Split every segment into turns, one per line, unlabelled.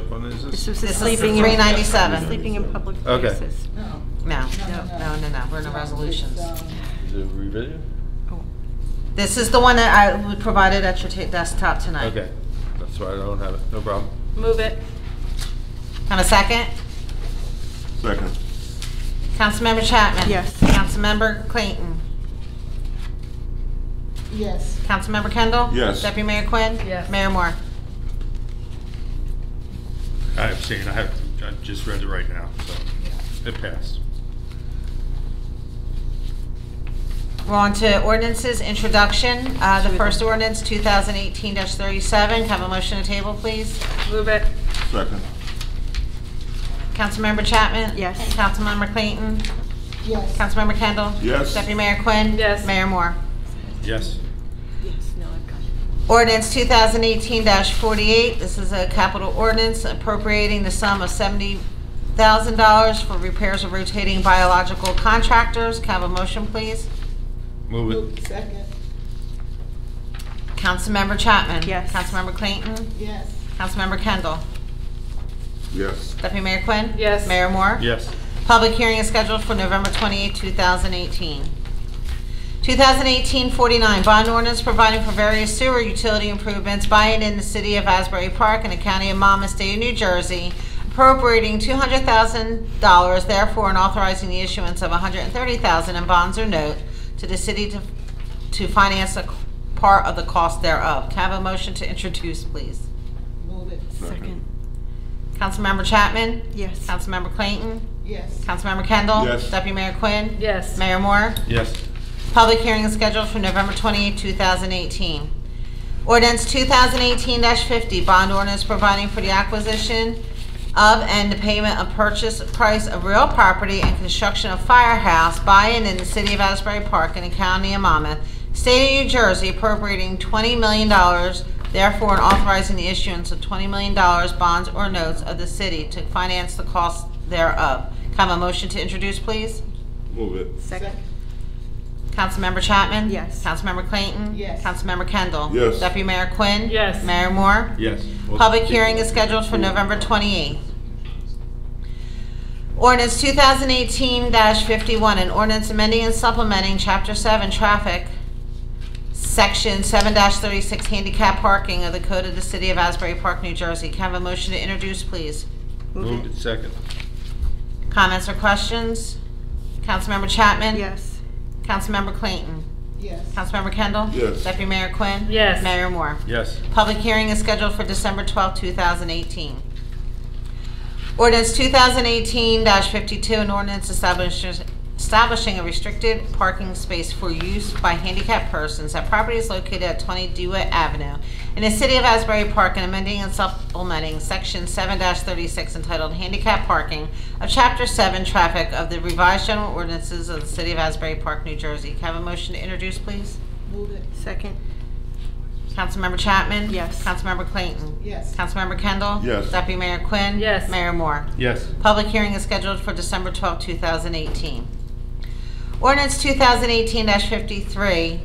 is this?
This was the
This is
sleeping. in-
397.
Sleeping in public
Okay.
places.
No.
No,
No.
no, no, no, we're in the resolutions.
It's, um,
The revision?
Oh,
This is the one that I provided at your ta- desktop tonight.
Okay, that's why I don't have it, no problem.
Move it.
On a second?
Second.
Councilmember Chapman?
Yes.
Councilmember Clayton?
Yes.
Councilmember Kendall?
Yes.
Deputy Mayor Quinn?
Yes.
Mayor Moore?
I have seen, I have, I just read it right now, so it passed.
We're on to ordinances, introduction. Uh, The first ordinance, 2018-37. Can I Have a motion to table, please.
Move it.
Second.
Councilmember Chapman?
Yes.
Councilmember Clayton?
Yes.
Councilmember Kendall?
Yes.
Deputy Mayor Quinn?
Yes.
Mayor Moore?
Yes,
Yes, no, I've got it.
Ordinance 2018-48, this is a capital ordinance appropriating the sum of $70,000 for repairs of rotating biological contractors. Can I have a motion, please?
move it.
Second.
Councilmember Chapman?
Yes.
Councilmember Clayton?
Yes.
Councilmember Kendall?
Yes.
Deputy Mayor Quinn?
Yes.
Mayor Moore?
Yes,
Public hearing is scheduled for November 28, 2018. 2018-49, bond ordinance providing for various sewer utility improvements by and in the city of Asbury Park and the county of Monmouth, state of New Jersey, appropriating $200,000 therefore and authorizing the issuance of $130,000 in bonds or note to the city to to finance a c- part of the cost thereof. Can I have a motion to introduce, please?
Move it.
Second.
Councilmember Chapman?
Yes.
Councilmember Clayton?
Yes.
Councilmember Kendall?
Yes.
Deputy Mayor Quinn?
Yes.
Mayor Moore?
yes,
Public hearing is scheduled for November 28, 2018. Ordinance 2018-50, bond ordinance providing for the acquisition of and the payment of purchase price of real property and construction of firehouse by and in the city of Asbury Park in the county of Monmouth, state of New Jersey appropriating $20 million, therefore and authorizing the issuance of $20 million bonds or notes of the city to finance the cost thereof. Can I have a motion to introduce, please?
Move it.
Second.
Councilmember Chapman?
Yes.
Councilmember Clayton?
Yes.
Councilmember Kendall?
Yes.
Deputy Mayor Quinn?
Yes.
Mayor Moore?
yes.
Public hearing is scheduled for November 28th. Ordinance 2018-51, an ordinance amending and supplementing Chapter 7 Traffic, Section 7-36 Handicap Parking of the Code of the City of Asbury Park, New Jersey. Can I have a motion to introduce, please?
Moved it second,
Comments or questions? Councilmember Chapman?
Yes.
Councilmember Clayton?
Yes.
Councilmember Kendall?
Yes.
Deputy Mayor Quinn?
Yes.
Mayor Moore?
yes,
Public hearing is scheduled for December 12, 2018. Ordinance 2018-52, an ordinance establishing establishing a restricted parking space for use by handicapped persons at properties located at 20 Dewitt Avenue in the city of Asbury Park and amending and supplementing Section 7-36 entitled Handicap Parking of Chapter 7 Traffic of the revised general ordinances of the city of Asbury Park, New Jersey. Can I have a motion to introduce, please?
Move it.
Second.
Councilmember Chapman?
Yes.
Councilmember Clayton?
Yes.
Councilmember Kendall?
Yes.
Deputy Mayor Quinn?
Yes.
Mayor Moore?
yes,
Public hearing is scheduled for December 12, 2018. Ordinance 2018-53,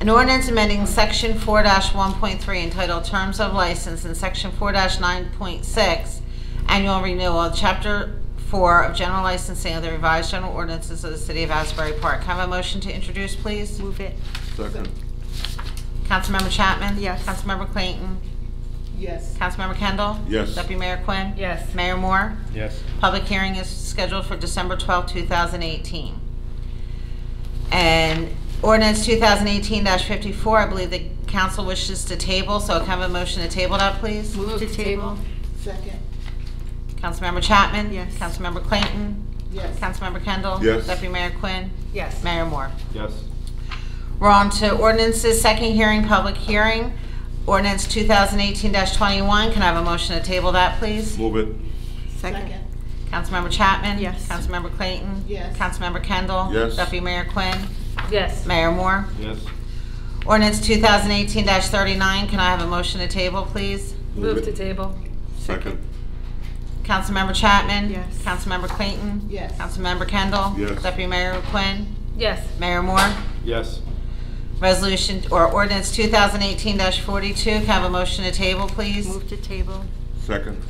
an ordinance amending Section 4-1.3 entitled Terms of License and Section 4-9.6 Annual Renewal, of Chapter 4 of General Licensing of the Revised General Ordinances of the City of Asbury Park. Can I Have a motion to introduce, please?
Move it.
Second.
Councilmember Chapman?
Yes.
Councilmember Clayton?
Yes.
Councilmember Kendall?
Yes.
Deputy Mayor Quinn?
Yes.
Mayor Moore?
yes,
Public hearing is scheduled for December 12, 2018. And ordinance 2018-54, I believe the council wishes to table, so can I have a motion to table that, please?
Move to table.
Second.
Councilmember Chapman?
Yes.
Councilmember Clayton?
Yes.
Councilmember Kendall?
Yes.
Deputy Mayor Quinn?
Yes.
Mayor Moore?
yes,
We're on to ordinances, second hearing, public hearing. Ordinance 2018-21, can I have a motion to table that, please?
Move it.
Second.
Councilmember Chapman?
Yes.
Councilmember Clayton?
Yes.
Councilmember Kendall?
Yes.
Deputy Mayor Quinn?
Yes.
Mayor Moore?
yes,
Ordinance 2018-39, can I have a motion to table, please?
Move
it.
to table.
Second.
Councilmember Chapman?
Yes.
Councilmember Clayton?
Yes.
Councilmember Kendall?
Yes.
Deputy Mayor Quinn?
Yes.
Mayor Moore?
yes,
Resolution, or ordinance 2018-42, can I have a motion to table, please?
Move to table.
Second.